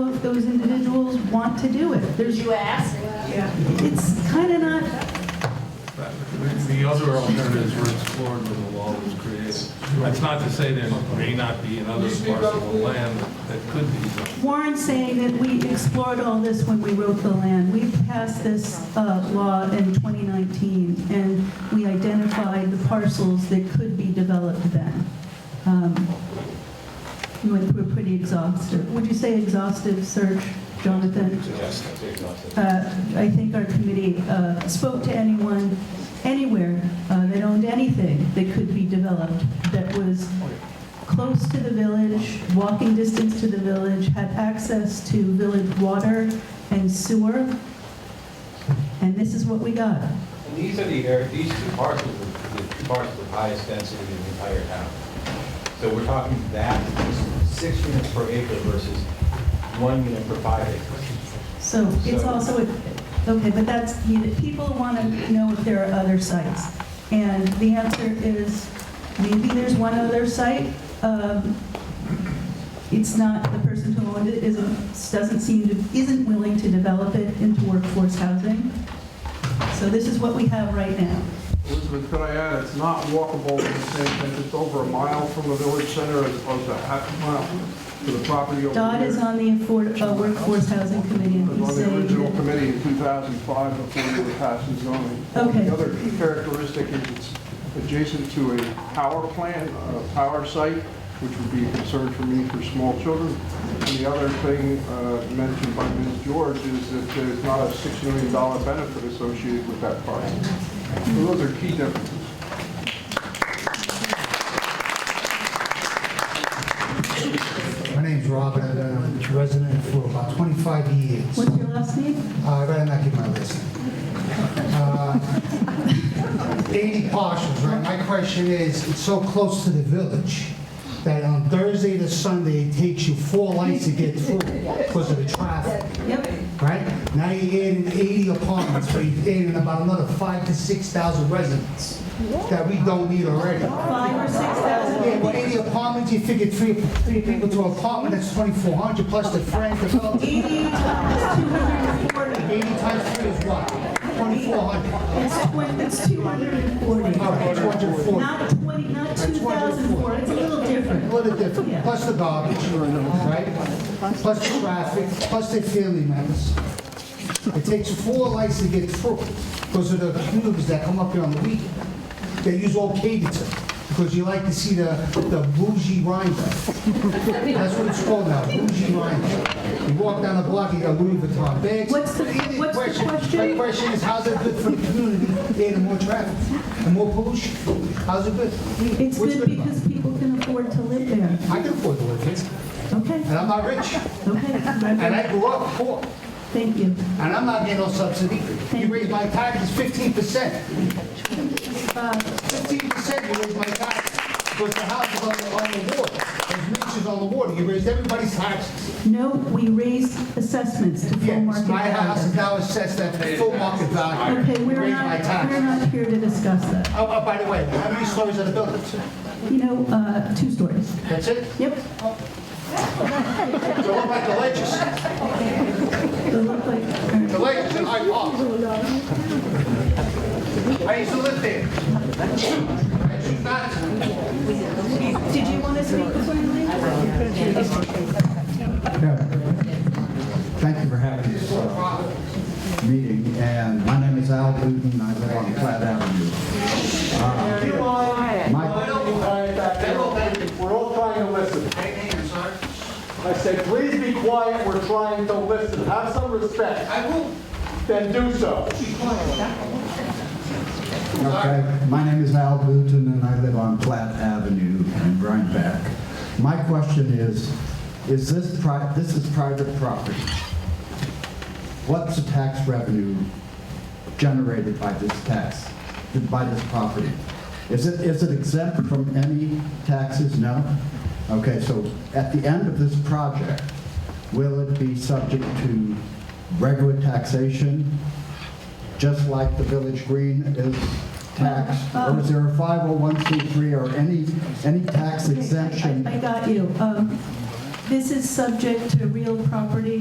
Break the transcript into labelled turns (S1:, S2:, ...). S1: if those individuals want to do it. There's,
S2: Did you ask?
S1: it's kind of not,
S3: The other alternatives were explored when the law was created. That's not to say there may not be another parcel of land that could be zoned.
S1: Warren's saying that we explored all this when we wrote the land. We passed this uh, law in 2019, and we identified the parcels that could be developed then. Um, We went through a pretty exhaustive, would you say exhaustive search, Jonathan? Uh, I think our committee uh, spoke to anyone, anywhere uh, that owned anything that could be developed that was close to the village, walking distance to the village, had access to village water and sewer. And this is what we got.
S4: And these are the, area- these two parcels, are the two parcels of highest density in the entire town. So we're talking that, six units per acre versus one unit per five acres.
S1: So it's
S4: So-
S1: also, okay, but that's, you know, people want to know if there are other sites. And the answer is, maybe there's one other site. Um, It's not, the person who owned it isn't, doesn't seem to, isn't willing to develop it into workforce housing. So this is what we have right now.
S5: Elizabeth, could I add, it's not walkable in the same sense, it's over a mile from the village center as opposed to half a mile to the property over
S1: Dodd
S5: here.
S1: is on the Afford- uh, Workforce Housing Committee, and
S5: It was
S1: he's
S5: on the
S1: saying
S5: original
S1: that-
S5: committee in 2005 before they were passing zoning.
S1: Okay.
S5: The other key characteristic is it's adjacent to a power plant, a power site, which would be a concern for me for small children. And the other thing uh, mentioned by Ms. George is that there's not a $6 million benefit associated with that project. So Those are key differences.
S6: My name's Robin, I've been a resident for about 25 years.
S1: what's your last name?
S6: I better not give my list. Uh, 80 parcels, right? My question is, it's so close to the village that on Thursday to Sunday, it takes you four lights to get through because of the traffic,
S1: Yep,
S6: right? Now you're adding 80 apartments, but you're adding about another 5 to 6,000 residents that we don't need already.
S1: five or 6,000
S6: Yeah, but 80 apartments, you figure three, three people to an apartment, that's 2,400 plus the friend, the fellow.
S1: 80 times 240.
S6: 80 times 3 is what? 2,400.
S1: It's twen- It's 240.
S6: All right, 240.
S1: Not 20, not 2,004, it's a little
S6: A
S1: different.
S6: little different, plus the garbage, right? Plus the traffic, plus the family members. It takes four lights to get through because of the commuters that come up here on the weekend. They use all Cadenton because you like to see the, the bougie Rhinebeck. That's what it's called now, bougie Rhinebeck. You walk down the block, you got Louis Vuitton bags.
S1: What's the-
S6: Any
S1: what's the question?
S6: My question is, how's it good for the community, adding more traffic and more pollution? How's it good?
S1: It's
S6: What's
S1: good
S6: about it?
S1: because people can afford to live there.
S6: I can afford to live here,
S1: Okay,
S6: and I'm not rich, and
S1: okay.
S6: I grew up poor,
S1: Thank you.
S6: and I'm not getting no subsidy. You raise my taxes fifteen percent. Fifteen percent you raise my taxes, because the house is on the, on the water, there's riches on the water, you raised everybody's taxes.
S1: No, we raised assessments to full
S6: Yes,
S1: market
S6: my house is
S1: value.
S6: now assessed at full market value.
S1: Okay,
S6: You
S1: we're
S6: raised my
S1: not, we're
S6: taxes.
S1: not here to discuss that.
S6: Oh, oh, by the way, how many stories are the buildings?
S1: You know, uh, two stories.
S6: That's it?
S1: Yep,
S6: They're all like the ledges,
S1: they look like,
S6: the ledges in Hyde Park. I used to live there. I choose not to.
S1: did you want to speak before you leave?
S7: Yeah. Thank you for having this uh, meeting, and my name is Al Booton, I live on Platt Avenue. Uh, My,
S8: We're all trying to listen. I said, please be quiet, we're trying to listen. Have some respect. I will. Then do so.
S7: okay, my name is Al Booton, and I live on Platt Avenue in Rhinebeck. My question is, is this pri, this is private property. What's the tax revenue generated by this tax, by this property? Is it, is it exempt from any taxes? No? Okay, so at the end of this project, will it be subject to regular taxation, just like the Village Green is taxed? Or is there a 501c3 or any, any tax exemption?
S1: I I got you. Um, This is subject to real property